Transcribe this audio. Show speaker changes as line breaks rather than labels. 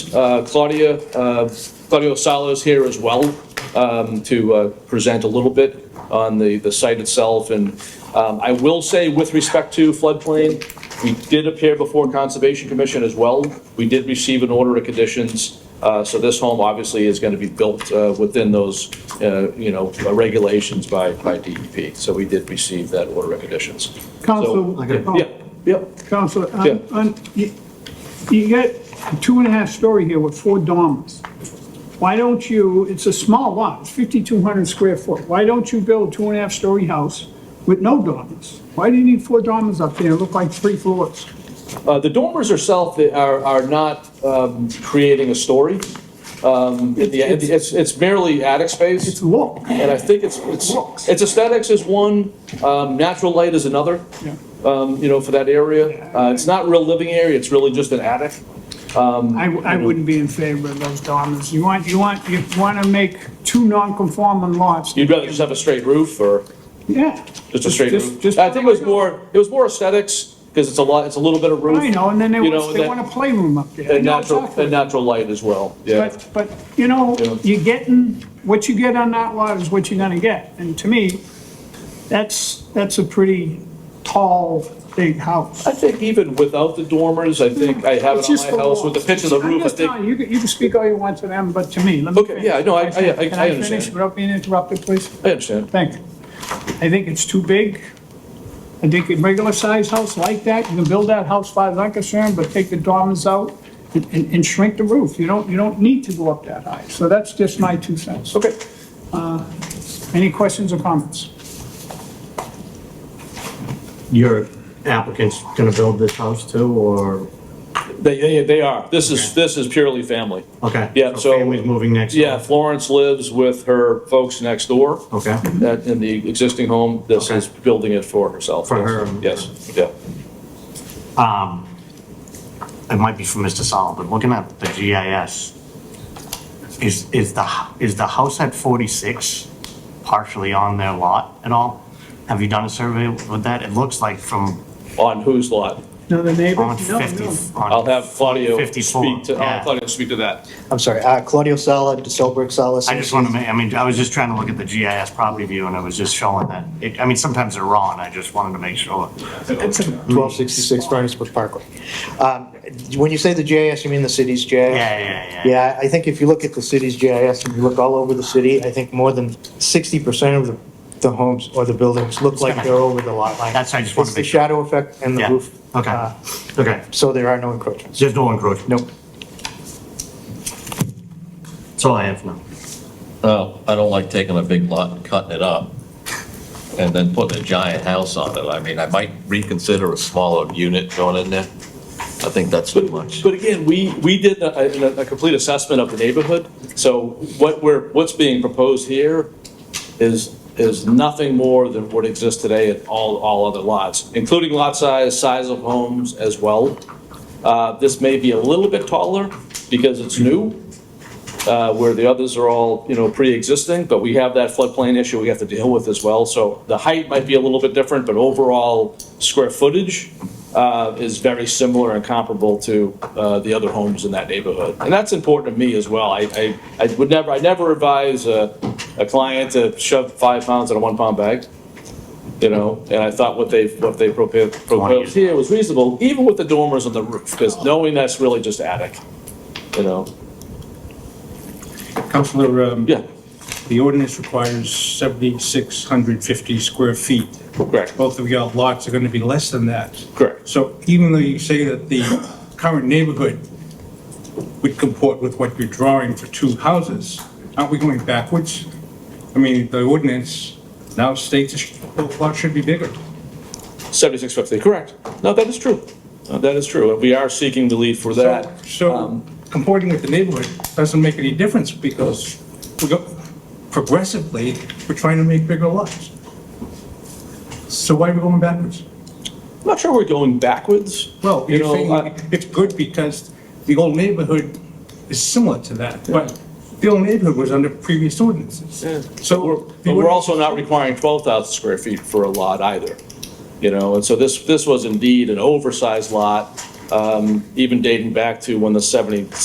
Uh, Claudia, uh, Claudio Salo is here as well um, to uh, present a little bit on the, the site itself. And um, I will say, with respect to floodplain, we did appear before Conservation Commission as well. We did receive an order of conditions. Uh, So this home obviously is going to be built uh, within those, uh, you know, regulations by, by DEP. So we did receive that order of conditions.
Counsel,
So-
I got it.
Yeah, yeah.
Counselor,
Yeah.
on, on- you, you got a two and a half story here with four dormers. Why don't you, it's a small lot, it's fifty-two hundred square foot, why don't you build a two and a half story house with no dormers? Why do you need four dormers up there, It look like three floors?
Uh, The dormers herself are, are not um, creating a story. Um, in the- It's, it's- it's merely attic
It's
space,
low.
and I think it's, it's,
Looks.
it's aesthetics is one, um, natural light is another,
Yeah.
um, you know, for that area. Uh, It's not real living area, it's really just an attic.
I, I wouldn't be in favor of those dormers. You want, you want, you wanna make two non-conforming lots.
You'd rather just have a straight roof or
Yeah.
just a straight
Just-
roof?
just-
I think it was more, it was more aesthetics, because it's a lot, it's a little bit of roof.
I know, and then they,
you
want-
know,
they
that-
want a playroom up there.
And
No,
natural,
exactly.
and natural light as well, yeah.
But, but, you know,
Yeah.
you're getting, what you get on that lot is what you're gonna get. And to me, that's, that's a pretty tall, big house.
I think even without the dormers, I think I have
It's
it on
just
my house with the
walls.
pitch of the
I'm
roof, I
just
think
telling You you can, you can speak all you want to them, but to me, let me
Okay,
finish.
yeah, no, I- I- I- I
Can I finish
understand.
without being interrupted, please?
I understand.
Thank you. I think it's too big. I think a regular-sized house like that, you can build that house as far as I'm concerned, but take the dormers out and, and and shrink the roof. You don't, you don't need to go up that high. So that's just my two cents.
Okay.
Any questions or comments?
Your applicant's gonna build this house too, or,
They, they, they are. This is, this is purely family.
okay?
Yeah, so-
Family's moving next door?
Yeah, Florence lives with her folks next door.
Okay.
That, in the existing home, this
Okay.
is building it for herself.
For her.
Yes, yeah.
It might be for Mr. Solomon, but looking at the GIS, is, is the, h- is the house at 46 partially on their lot at all? Have you done a survey with that? It looks like from
On whose lot?
No, the neighbor?
on 50. on-
I'll have Claudio
54,
speak to, I'll
yeah.
have Claudio speak to that.
I'm sorry, uh, Claudio Sala, DeSilbrick Sala.
I just want to make, I mean, I was just trying to look at the GIS property view and I was just showing that. It- I mean, sometimes they're wrong, I just wanted to make sure.
1266 Furnace Brook Parkway. Um, When you say the JIS, you mean the city's JIS?
Yeah, yeah, yeah.
Yeah, I think if you look at the city's GIS and you look all over the city, I think more than 60% of the- the homes or the buildings look like they're over the lot line.
That's- I just wanna
It's the
make sure.
shadow effect and the
Yeah,
roof. uh,
okay, okay.
So there are no encroachments.
There's no encroachment.
Nope.
That's all I have now.
No, I don't like taking a big lot and cutting it up and then putting a giant house on it. I mean, I might reconsider a smaller unit going in there. I think that's too much.
But again, we, we did a, a- a complete assessment of the neighborhood, so what we're, what's being proposed here is, is nothing more than what exists today at all, all other lots, including lot size, size of homes as well. Uh, this may be a little bit taller because it's new, uh, where the others are all, you know, pre-existing, but we have that floodplain issue we have to deal with as well, so the height might be a little bit different, but overall square footage uh, is very similar and comparable to uh, the other homes in that neighborhood. And that's important to me as well. I, I, I would never, I never advise a, a client to shove five pounds in a one-pound bag, you know? And I thought what they, what they propo- proposed here was reasonable, even with the dormers on the roof, because knowing that's really just attic, you know?
Counselor, um,
Yeah,
the ordinance requires 7,650 square feet.
correct,
Both of your lots are going to be less than that.
correct.
So even though you say that the current neighborhood would comport with what you're drawing for two houses, aren't we going backwards? I mean, the ordinance now states the lot should be bigger.
7650, correct. No, that is true. Uh, That is true. We are seeking relief for that.
So
Um,
comporting with the neighborhood doesn't make any difference because we go progressively, we're trying to make bigger lots. So why are we going backwards?
I'm not sure we're going backwards.
Well,
You
you're
know,
saying
uh,
it's good because the old neighborhood is similar to that, but the old neighborhood was under previous ordinances.
But we're,
So.
but we're also not requiring 12,000 square feet for a lot either, you know? And so this, this was indeed an oversized lot, um, even dating back to when the 70,